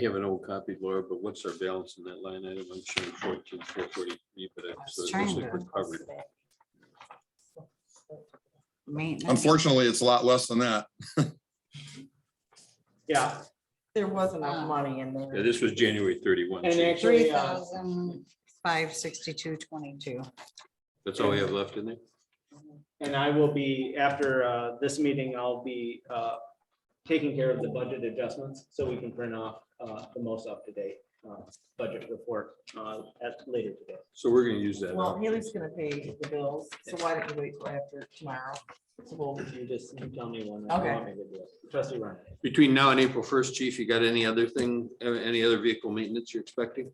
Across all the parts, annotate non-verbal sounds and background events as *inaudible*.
I have an old copy, Laura, but what's our balance in that line item? I'm showing fourteen, four forty-three, but it was so it trying looks like to- we're covered. Maintenance. Unfortunately, it's a lot less than that. Yeah, there was enough Uh, money in Yeah, there. this was January thirty-one. And so actually, Three uh, thousand five sixty-two twenty-two. That's all we have left in there? and I will be, after uh, this meeting, I'll be uh, taking care of the budget adjustments, so we can print off uh, the most up-to-date uh, budget report uh, at later today. So we're gonna use that. Well, Haley's gonna pay the bills, so why don't you wait till after tomorrow? Well, you just, you tell me when. Okay. Trustee Ryan. Between now and April first, chief, you got any other thing, uh, any other vehicle maintenance you're expecting?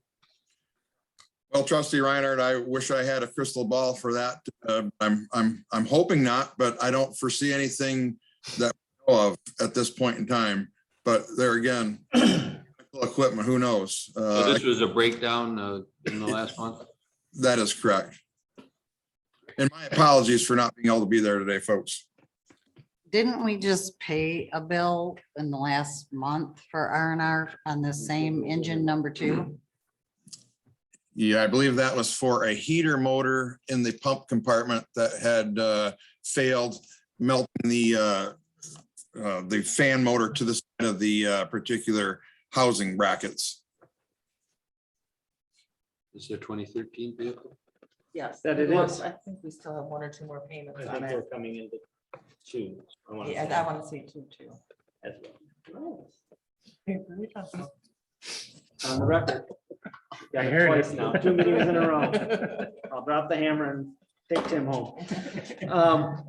Well, trustee Reinhardt, I wish I had a crystal ball for that. Uh, I'm, I'm, I'm hoping not, but I don't foresee anything that we know of at this point in time. But there again, equipment, who knows? So Uh, This was a breakdown uh, in the last month. That is correct. And my apologies for not being able to be there today, folks. Didn't we just pay a bill in the last month for R and R on the same engine number two? Yeah, I believe that was for a heater motor in the pump compartment that had uh, failed melting the uh, uh, the fan motor to the side of the uh, particular housing brackets. Is there twenty thirteen vehicle? Yes. That it Well, is. I think we still have one or two more payments I on think we're it. coming into two. wanna Yeah, say, I want to say two, too. as well. On the record. Got *laughs* I it heard it. twice now, two meetings in a row. *laughs* I'll drop the hammer and take Tim home. Um,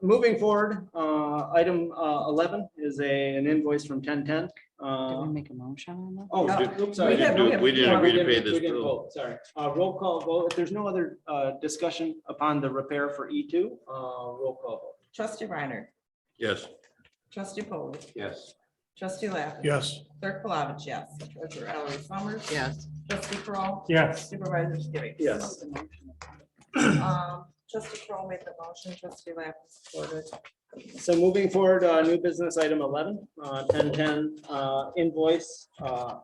Moving forward, uh, item uh, eleven is a, an invoice from ten ten. Did we Oh, make a motion on that? oops, sorry. We didn't do- we didn't agree to pay this We didn't bill. vote, Sorry. Uh, Roll call vote. If there's no other uh, discussion upon the repair for E two, roll call vote. Trustee Reiner, Yes. trustee Polly, Yes. trustee Lappin. Yes. Clerk Palovich, yes. Treasurer Ellery Summers. Yes. Trustee Crowell. Yes. Supervisor Skibby. Yes. Um, Trustee Crowell made the motion, trustee Lappin supported. So moving forward, uh, new business item eleven, uh, ten ten, uh, invoice, uh.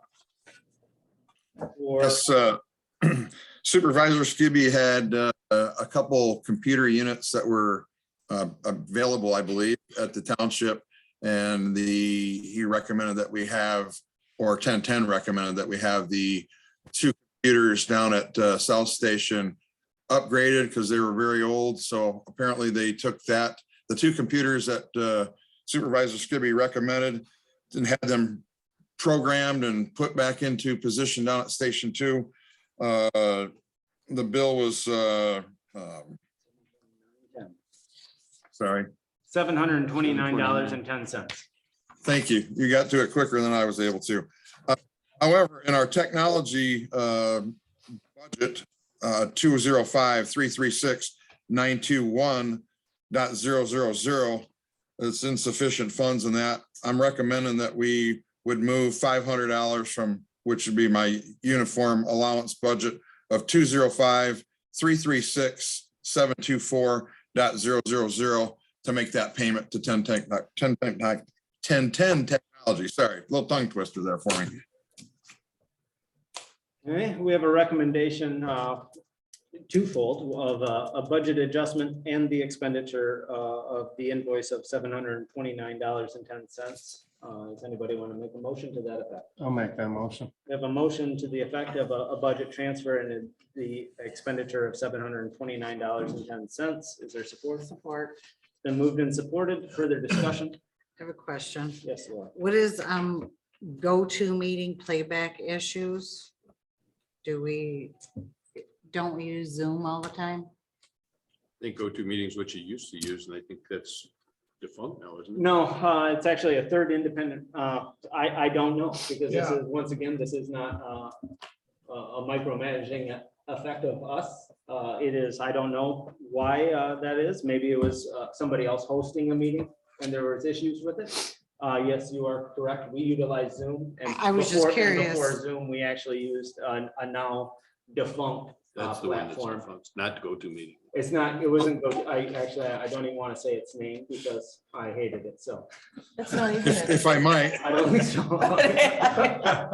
For, Yes, uh, *clears throat* Supervisor Skibby had uh, a couple computer units that were uh, available, I believe, at the township. And the, he recommended that we have, or 1010 recommended that we have the two computers down at uh, South Station upgraded because they were very old. So apparently they took that, the two computers that uh, Supervisor Skibby recommended and had them programmed and put back into position down at Station Two. Uh, The bill was, uh, um, sorry, seven hundred and twenty-nine dollars and ten cents. thank you. You got to it quicker than I was able to. Uh, However, in our technology uh, budget, uh, two zero five three three six nine two one dot zero zero zero, it's insufficient funds in that. I'm recommending that we would move five hundred dollars from, which would be my uniform allowance budget of two zero five, three three six, seven two four dot zero zero zero to make that payment to ten tech, ten tech, ten ten technology, sorry, little tongue twister there for me. Okay, we have a recommendation, uh, twofold of uh, a, a budget adjustment and the expenditure, uh, of the invoice of seven hundred and twenty-nine dollars and ten cents. Uh, does anybody want to make a motion to that effect? I'll make that motion. We have a motion to the effect of a, a budget transfer and a- the expenditure of seven hundred and twenty-nine dollars and ten cents. Is there support? Support. Then moved and supported. Further discussion? I have a question. Yes, Laura. What is, um, go-to meeting playback issues? Do we, don't we use Zoom all the time? I think go-to meetings, what you used to use, and I think that's defunct now, isn't it? No, uh, it's actually a third independent. Uh, I, I don't know because this Yeah. is, once again, this is not, uh, a, a micromanaging effect of us. Uh, it is, I don't know why, uh, that is. Maybe it was, uh, somebody else hosting a meeting and there was issues with it. Uh, yes, you are correct. We utilize Zoom and. I- I was just before- and curious. Before Zoom, we actually used a, a now defunct uh, That's the one that's platform. defunct, not go-to meeting. It's not, it wasn't, go- I actually, I don't even want to say its name because I hated it, so. That's not even. If if I might, I don't think so.